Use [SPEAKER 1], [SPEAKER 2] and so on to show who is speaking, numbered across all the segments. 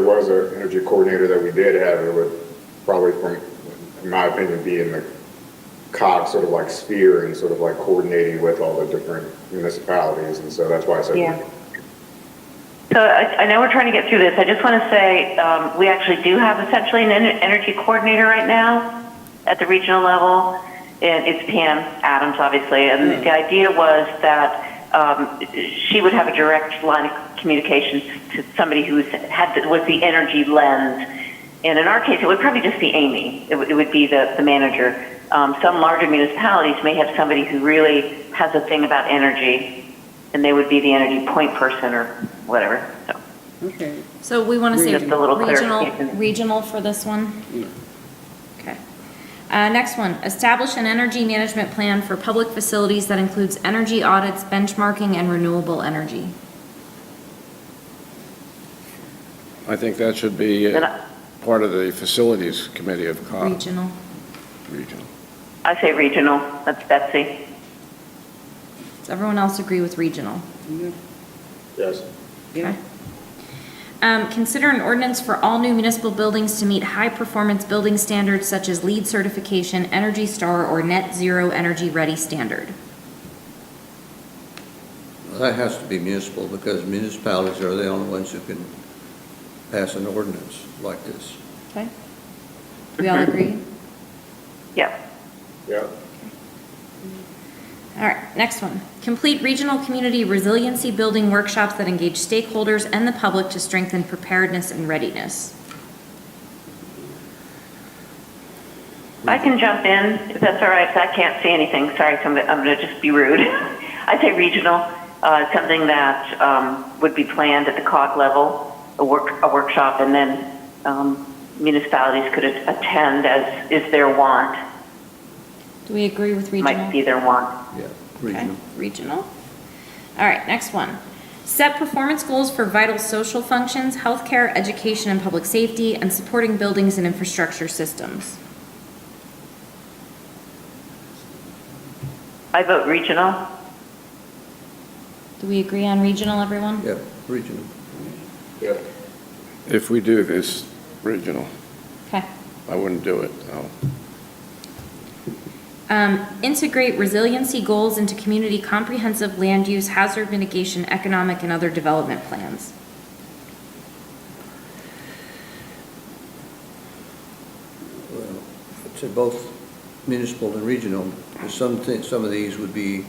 [SPEAKER 1] was an energy coordinator that we did have, it would probably, from, in my opinion, be in the COG sort of like sphere and sort of like coordinating with all the different municipalities, and so that's why I said.
[SPEAKER 2] Yeah.
[SPEAKER 3] So I, I know we're trying to get through this. I just want to say um, we actually do have essentially an en- energy coordinator right now at the regional level, and it's Pam Adams, obviously. And the idea was that um, she would have a direct line of communication to somebody who's had the, was the energy lens. And in our case, it would probably just be Amy. It, would- it would be the, the manager. Um, some larger municipalities may have somebody who really has a thing about energy, and they would be the energy point person or whatever. So,
[SPEAKER 2] Okay,
[SPEAKER 4] So we want to say
[SPEAKER 3] Just a little
[SPEAKER 4] regional,
[SPEAKER 3] clarification.
[SPEAKER 4] regional for this one?
[SPEAKER 2] Yeah.
[SPEAKER 4] Okay. Uh, next one, establish an energy management plan for public facilities that includes energy audits, benchmarking, and renewable energy.
[SPEAKER 5] I think that should be
[SPEAKER 3] And
[SPEAKER 5] uh,
[SPEAKER 3] I-
[SPEAKER 5] part of the Facilities Committee of COG
[SPEAKER 4] Regional.
[SPEAKER 5] Regional.
[SPEAKER 3] I say regional. That's Betsy.
[SPEAKER 4] Does everyone else agree with regional?
[SPEAKER 2] yeah,
[SPEAKER 1] Yes.
[SPEAKER 2] yeah.
[SPEAKER 4] Um, consider an ordinance for all new municipal buildings to meet high-performance building standards such as LEED certification, Energy Star, or Net Zero Energy Ready standard.
[SPEAKER 6] Well, That has to be municipal, because municipalities are the only ones who can pass an ordinance like this.
[SPEAKER 4] Okay? We all agree?
[SPEAKER 3] Yeah.
[SPEAKER 1] Yeah.
[SPEAKER 4] All right, next one. Complete regional community resiliency building workshops that engage stakeholders and the public to strengthen preparedness and readiness.
[SPEAKER 3] I can jump in if that's all right. 'cause I can't see anything. Sorry, so I'm, gonna- I'm going to just be rude. I say regional, uh, something that um, would be planned at the COG level, a, work, a workshop, and then um, municipalities could a- attend as is their want,
[SPEAKER 4] Do we agree with
[SPEAKER 3] might
[SPEAKER 4] regional?
[SPEAKER 3] be their want.
[SPEAKER 6] Yeah.
[SPEAKER 4] Okay,
[SPEAKER 6] Regional.
[SPEAKER 4] Regional. All right, next one. Set performance goals for vital social functions, healthcare, education, and public safety, and supporting buildings and infrastructure systems.
[SPEAKER 3] I vote regional.
[SPEAKER 4] Do we agree on regional, everyone?
[SPEAKER 6] Yeah, regional.
[SPEAKER 1] Yeah.
[SPEAKER 5] If we do this regional,
[SPEAKER 4] Okay.
[SPEAKER 5] I wouldn't do it, no.
[SPEAKER 4] Um, integrate resiliency goals into community comprehensive land use, hazard mitigation, economic, and other development plans.
[SPEAKER 6] Well, I'd say both municipal and regional, There's some, thi- some of these would be,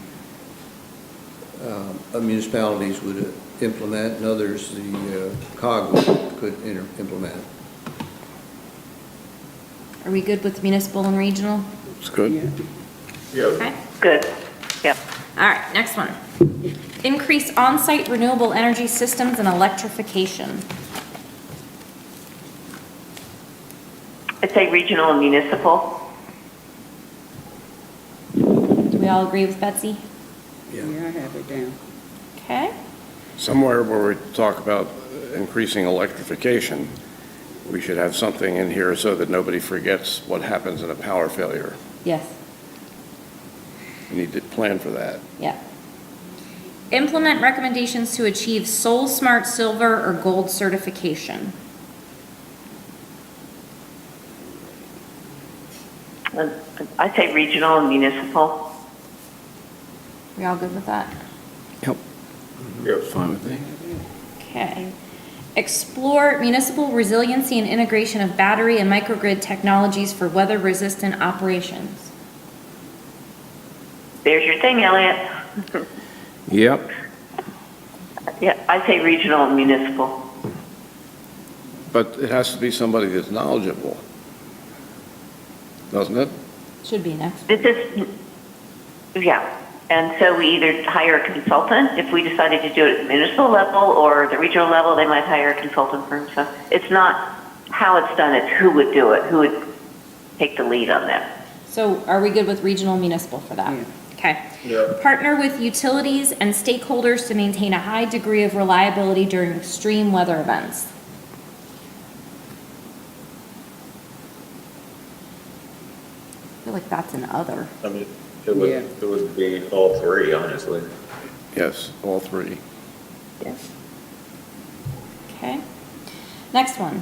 [SPEAKER 6] um, uh, municipalities would uh, implement, and others the uh, COG would- could inter- implement.
[SPEAKER 4] Are we good with municipal and regional?
[SPEAKER 5] It's good.
[SPEAKER 1] Yeah.
[SPEAKER 4] Okay.
[SPEAKER 3] Good. Yep.
[SPEAKER 4] All right, next one. Increase on-site renewable energy systems and electrification.
[SPEAKER 3] I'd say regional and municipal.
[SPEAKER 4] Do we all agree with Betsy?
[SPEAKER 2] Yeah, I have it down.
[SPEAKER 4] Okay.
[SPEAKER 5] Somewhere where we talk about increasing electrification, we should have something in here so that nobody forgets what happens in a power failure.
[SPEAKER 4] Yes.
[SPEAKER 5] We need to plan for that.
[SPEAKER 4] Yeah. Implement recommendations to achieve Soul Smart Silver or Gold certification.
[SPEAKER 3] I'd say regional and municipal.
[SPEAKER 4] We all good with that?
[SPEAKER 5] Yep.
[SPEAKER 1] Yes.
[SPEAKER 5] Fine with me.
[SPEAKER 4] Okay. Explore municipal resiliency and integration of battery and microgrid technologies for weather-resistant operations.
[SPEAKER 3] There's your thing, Elliot.
[SPEAKER 5] Yep.
[SPEAKER 3] Yeah, I say regional and municipal.
[SPEAKER 5] But it has to be somebody that's knowledgeable, doesn't it?
[SPEAKER 4] Should be next.
[SPEAKER 3] This is, yeah. And so we either hire a consultant if we decided to do it at the municipal level or the regional level, they might hire a consultant firm. So it's not how it's done, it's who would do it, who would take the lead on that.
[SPEAKER 4] So are we good with regional municipal for that? Okay.
[SPEAKER 1] Yeah.
[SPEAKER 4] Partner with utilities and stakeholders to maintain a high degree of reliability during extreme weather events. I feel like that's an other.
[SPEAKER 7] I mean, it would,
[SPEAKER 2] Yeah.
[SPEAKER 7] it would be all three, honestly.
[SPEAKER 5] Yes, all three.
[SPEAKER 4] Yes. Okay. Next one.